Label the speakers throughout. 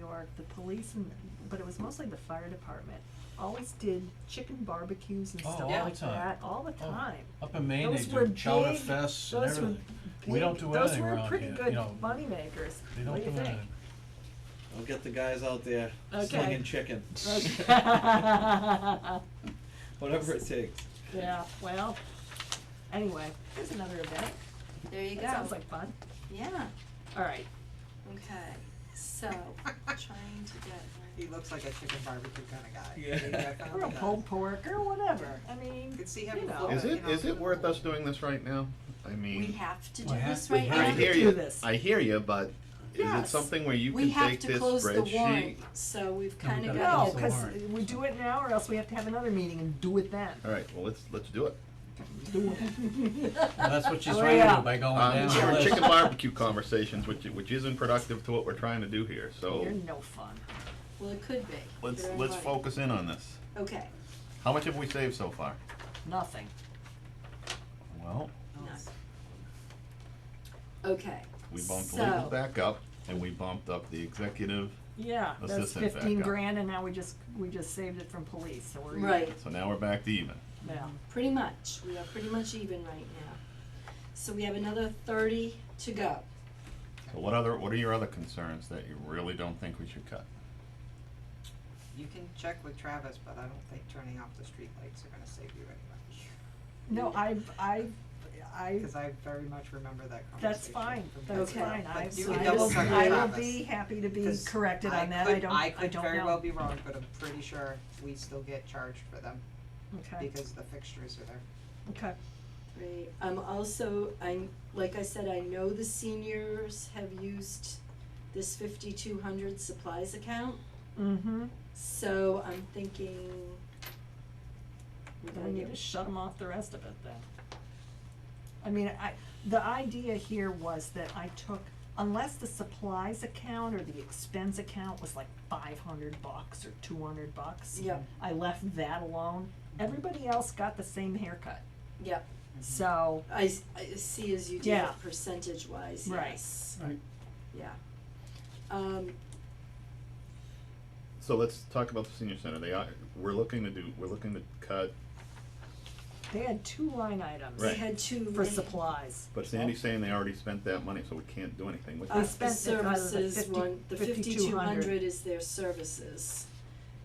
Speaker 1: Park, the police and, but it was mostly the fire department, always did chicken barbecues and
Speaker 2: Oh,
Speaker 1: stuff
Speaker 2: all
Speaker 1: like
Speaker 2: the time.
Speaker 1: that, all the
Speaker 2: Oh,
Speaker 1: time.
Speaker 2: Up in Maine, they
Speaker 1: Those were
Speaker 2: do chowder
Speaker 1: big-
Speaker 2: fests and
Speaker 1: those were
Speaker 2: everything. We don't
Speaker 1: big-
Speaker 2: do anything
Speaker 1: Those were
Speaker 2: around here,
Speaker 1: pretty
Speaker 2: you
Speaker 1: good
Speaker 2: know.
Speaker 1: moneymakers, what
Speaker 2: They
Speaker 1: do you
Speaker 2: don't do
Speaker 1: think?
Speaker 2: anything.
Speaker 3: I'll get the guys out there
Speaker 1: Okay.
Speaker 3: slinging chicken.
Speaker 1: Okay.
Speaker 3: Whatever it takes.
Speaker 1: Yeah, well, anyway, there's another event,
Speaker 4: There you go.
Speaker 1: that sounds like fun,
Speaker 4: Yeah,
Speaker 1: alright,
Speaker 4: okay, so, trying to get.
Speaker 5: He looks like a chicken barbecue kind of guy.
Speaker 3: Yeah.
Speaker 5: Maybe I found
Speaker 1: or a
Speaker 5: the guy.
Speaker 1: pulled pork, or whatever, I mean,
Speaker 5: Could see him
Speaker 1: you know.
Speaker 5: before.
Speaker 6: Is it,
Speaker 5: you know,
Speaker 6: is it worth us doing this right now? I mean.
Speaker 4: We have to do
Speaker 2: We have-
Speaker 4: this
Speaker 2: we
Speaker 4: right now.
Speaker 2: have
Speaker 6: I
Speaker 2: to
Speaker 6: hear
Speaker 1: do
Speaker 6: you,
Speaker 1: this.
Speaker 6: I hear you, but is it
Speaker 1: Yes.
Speaker 6: something where you
Speaker 4: We
Speaker 6: can
Speaker 4: have
Speaker 6: take
Speaker 4: to
Speaker 6: this
Speaker 4: close the warrant,
Speaker 6: spreadsheet?
Speaker 4: so we've
Speaker 2: No, we
Speaker 4: kinda
Speaker 2: gotta
Speaker 1: No,
Speaker 2: close
Speaker 4: got.
Speaker 2: the
Speaker 1: cause
Speaker 2: warrant.
Speaker 1: we do it now, or else we have to have another meeting and do it then.
Speaker 6: Alright, well, let's, let's do it.
Speaker 1: Do it.
Speaker 2: Well, that's what she's
Speaker 1: Hurry
Speaker 2: trying to do
Speaker 1: up.
Speaker 2: by going
Speaker 6: Um,
Speaker 2: down
Speaker 6: it's
Speaker 2: the
Speaker 6: our
Speaker 2: list.
Speaker 6: chicken barbecue conversations, which, which isn't productive to what we're trying to do here, so
Speaker 1: You're no fun.
Speaker 4: Well, it could be.
Speaker 6: let's,
Speaker 4: You're
Speaker 6: let's
Speaker 4: right.
Speaker 6: focus in on this.
Speaker 4: Okay,
Speaker 6: How much have we saved so far?
Speaker 1: Nothing.
Speaker 6: Well,
Speaker 4: no. Okay,
Speaker 6: we bumped legal
Speaker 4: so,
Speaker 6: back up, and we bumped up the executive,
Speaker 1: Yeah,
Speaker 6: Let's
Speaker 1: that's
Speaker 6: just hit back
Speaker 1: fifteen
Speaker 6: up.
Speaker 1: grand and now we just, we just saved it from police, so we're. even.
Speaker 4: right,
Speaker 6: so now we're back to even.
Speaker 1: Yeah,
Speaker 4: pretty much, we are pretty much even right now. So we have another thirty to go.
Speaker 6: So what other, what are your other concerns that you really don't think we should cut?
Speaker 5: You can check with Travis, but I don't think turning off the streetlights are gonna save you anyway.
Speaker 1: no, I, I, I,
Speaker 5: Cause I very much remember that conversation.
Speaker 1: that's fine,
Speaker 5: from
Speaker 1: that's
Speaker 5: years ago.
Speaker 1: fine,
Speaker 5: But
Speaker 1: I,
Speaker 5: you
Speaker 1: I
Speaker 5: can
Speaker 4: will-
Speaker 5: double
Speaker 1: will,
Speaker 5: check with
Speaker 1: I will
Speaker 5: Travis,
Speaker 1: be happy to be
Speaker 5: 'cause
Speaker 1: corrected on that, I
Speaker 5: could-
Speaker 1: don't,
Speaker 5: I
Speaker 1: I
Speaker 5: could
Speaker 1: don't
Speaker 5: very well
Speaker 1: know,
Speaker 5: be wrong, but I'm pretty sure we still get charged for them
Speaker 1: okay,
Speaker 5: because the fixtures are there.
Speaker 1: okay,
Speaker 4: Right, I'm also, I'm, like I said, I know the seniors have used this fifty-two hundred supplies account,
Speaker 1: mm-hmm,
Speaker 4: so I'm thinking we
Speaker 1: we
Speaker 4: gotta
Speaker 1: need
Speaker 4: get
Speaker 1: to shut them off the rest of it then. I mean, I, the idea here was that I took, unless the supplies account or the expense account was like five hundred bucks or two hundred bucks.
Speaker 4: Yep,
Speaker 1: I left that alone. Everybody else got the same haircut.
Speaker 4: yep,
Speaker 1: So,
Speaker 4: I, s- I see as you did
Speaker 1: Yeah.
Speaker 4: it percentage wise,
Speaker 1: Right.
Speaker 4: yes,
Speaker 2: Right.
Speaker 4: yeah. Um,
Speaker 6: So let's talk about the senior center, they are, we're looking to do, we're looking to cut,
Speaker 1: they had two line items
Speaker 4: we
Speaker 6: Right.
Speaker 4: had two.
Speaker 1: for supplies.
Speaker 6: but Sandy's saying they already spent that money, so we can't do anything with it.
Speaker 4: Uh,
Speaker 1: We
Speaker 4: the
Speaker 1: spent it out of the
Speaker 4: services
Speaker 1: 50
Speaker 4: one, the
Speaker 1: 5200.
Speaker 4: fifty-two hundred is their services,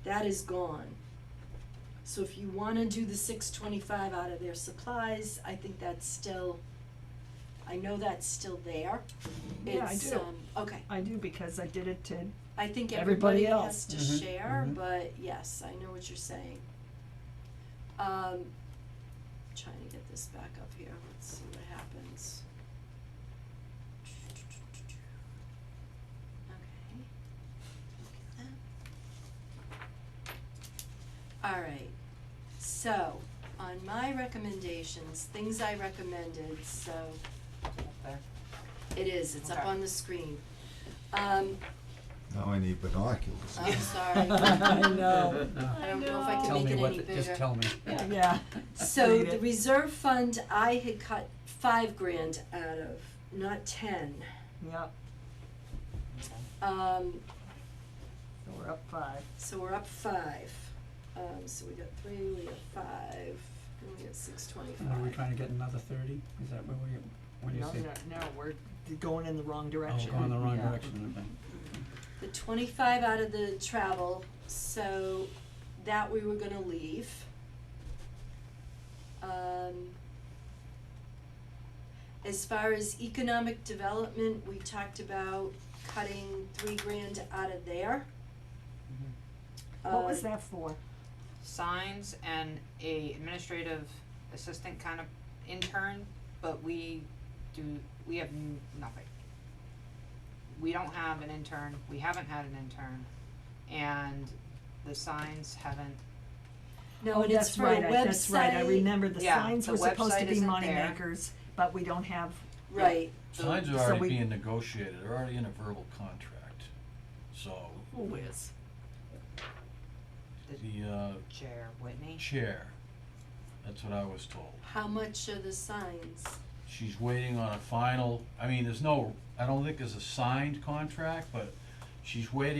Speaker 4: that is gone. So if you wanna do the six twenty-five out of their supplies, I think that's still, I know that's still there.
Speaker 1: Yeah, I
Speaker 4: It's,
Speaker 1: do.
Speaker 4: um, okay,
Speaker 1: I do because I did it to,
Speaker 4: I think
Speaker 1: Everybody
Speaker 4: everybody
Speaker 1: else.
Speaker 4: has to
Speaker 2: Mhm,
Speaker 4: share,
Speaker 2: mhm.
Speaker 4: but yes, I know what you're saying. Um, trying to get this back up here, let's see what happens. Okay. Look at that. Alright, so, on my recommendations, things I recommended, so
Speaker 5: Up there.
Speaker 4: it is, it's up
Speaker 5: Okay.
Speaker 4: on the screen. Um,
Speaker 7: Now I need binoculars.
Speaker 4: I'm sorry.
Speaker 1: I know.
Speaker 4: I don't know if I can
Speaker 2: Tell
Speaker 4: make
Speaker 2: me
Speaker 4: it
Speaker 2: what,
Speaker 4: any
Speaker 2: the- just
Speaker 4: bigger.
Speaker 2: tell me.
Speaker 4: Yeah.
Speaker 1: yeah.
Speaker 4: So
Speaker 1: Read
Speaker 4: the
Speaker 1: it.
Speaker 4: reserve fund, I had cut five grand out of, not ten.
Speaker 1: Yep.
Speaker 4: Um,
Speaker 1: So we're up five.
Speaker 4: so we're up five. Um, so we got three, we got five, and we got six
Speaker 2: And Are we
Speaker 4: twenty-five.
Speaker 2: trying to get another thirty? Is that where we, what do you
Speaker 1: no,
Speaker 2: say?
Speaker 1: no, no, we're going in the wrong
Speaker 2: Oh,
Speaker 1: direction.
Speaker 2: going the wrong
Speaker 1: Yeah.
Speaker 2: direction, okay.
Speaker 4: The twenty-five out of the travel, so that we were gonna leave. Um, as far as economic development, we talked about cutting three grand out of there.
Speaker 1: Mm-hmm. What was
Speaker 4: Uh,
Speaker 1: that for?
Speaker 8: signs and a administrative assistant kind of intern, but we do, we have n- nothing. We don't have an intern, we haven't had an intern, and the signs haven't,
Speaker 4: No,
Speaker 1: oh,
Speaker 4: and
Speaker 1: that's
Speaker 4: it's for a
Speaker 1: right.
Speaker 4: website.
Speaker 1: I, that's right. I remember the
Speaker 8: Yeah,
Speaker 1: signs
Speaker 8: the
Speaker 1: were supposed to
Speaker 8: website
Speaker 1: be
Speaker 8: isn't
Speaker 1: money
Speaker 8: there.
Speaker 1: makers, but we don't have.
Speaker 4: Right,
Speaker 2: Signs
Speaker 1: So
Speaker 2: are already
Speaker 1: we-
Speaker 2: being negotiated, they're already in a verbal contract, so
Speaker 1: Whiz.
Speaker 2: the uh
Speaker 8: Chair Whitney.
Speaker 2: chair, that's what I was told.
Speaker 4: how much are the signs?
Speaker 2: She's waiting on a final, I mean, there's no, I don't think there's a signed contract, but she's waiting